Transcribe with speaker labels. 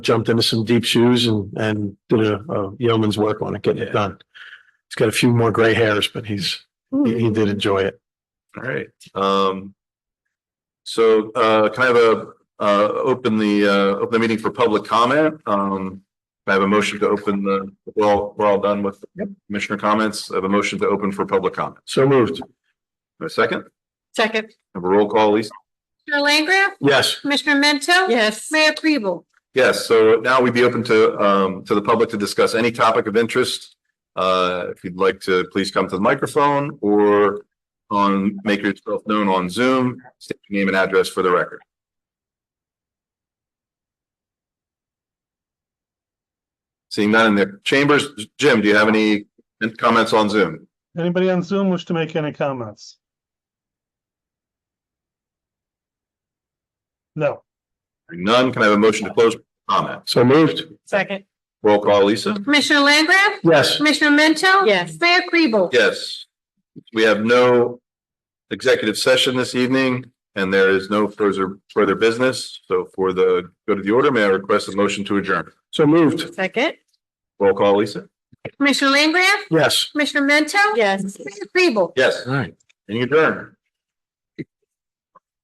Speaker 1: jumped into some deep shoes and, and did a, a yeoman's work on it, getting it
Speaker 2: Yeah.
Speaker 1: done. He's got a few more gray hairs, but he's, he, he did enjoy it.
Speaker 2: All right, um. So, uh, can I have a, uh, open the, uh, open the meeting for public comment? Um. can I have a motion to open the, we're all, we're all done with commissioner comments. I have a motion to open for public comment.
Speaker 1: So moved.
Speaker 2: A second,
Speaker 3: Second.
Speaker 2: have a roll call, Lisa.
Speaker 4: Commissioner Langgraf?
Speaker 1: Yes,
Speaker 4: Commissioner Mento?
Speaker 3: Yes.
Speaker 4: Mayor Kribel?
Speaker 2: Yes, so now we'd be open to, um, to the public to discuss any topic of interest. Uh, if you'd like to, please come to the microphone or on, make yourself known on Zoom, state your name and address for the record. Seeing none in the chambers, Jim, do you have any comments on Zoom?
Speaker 5: Anybody on Zoom wish to make any comments? No,
Speaker 2: None, can I have a motion to close comment?
Speaker 1: so moved.
Speaker 3: Second.
Speaker 2: Roll call, Lisa?
Speaker 4: Commissioner Langgraf?
Speaker 1: Yes,
Speaker 4: Commissioner Mento?
Speaker 3: Yes.
Speaker 4: Mayor Kribel?
Speaker 2: Yes. We have no executive session this evening and there is no further, further business. So for the, go to the order, may I request a motion to adjourn?
Speaker 1: so moved.
Speaker 3: Second.
Speaker 2: Roll call, Lisa?
Speaker 4: Commissioner Langgraf?
Speaker 1: Yes.
Speaker 4: Commissioner Mento?
Speaker 3: Yes.
Speaker 4: Mayor Kribel?
Speaker 2: Yes,
Speaker 1: All right.
Speaker 2: and you adjourn.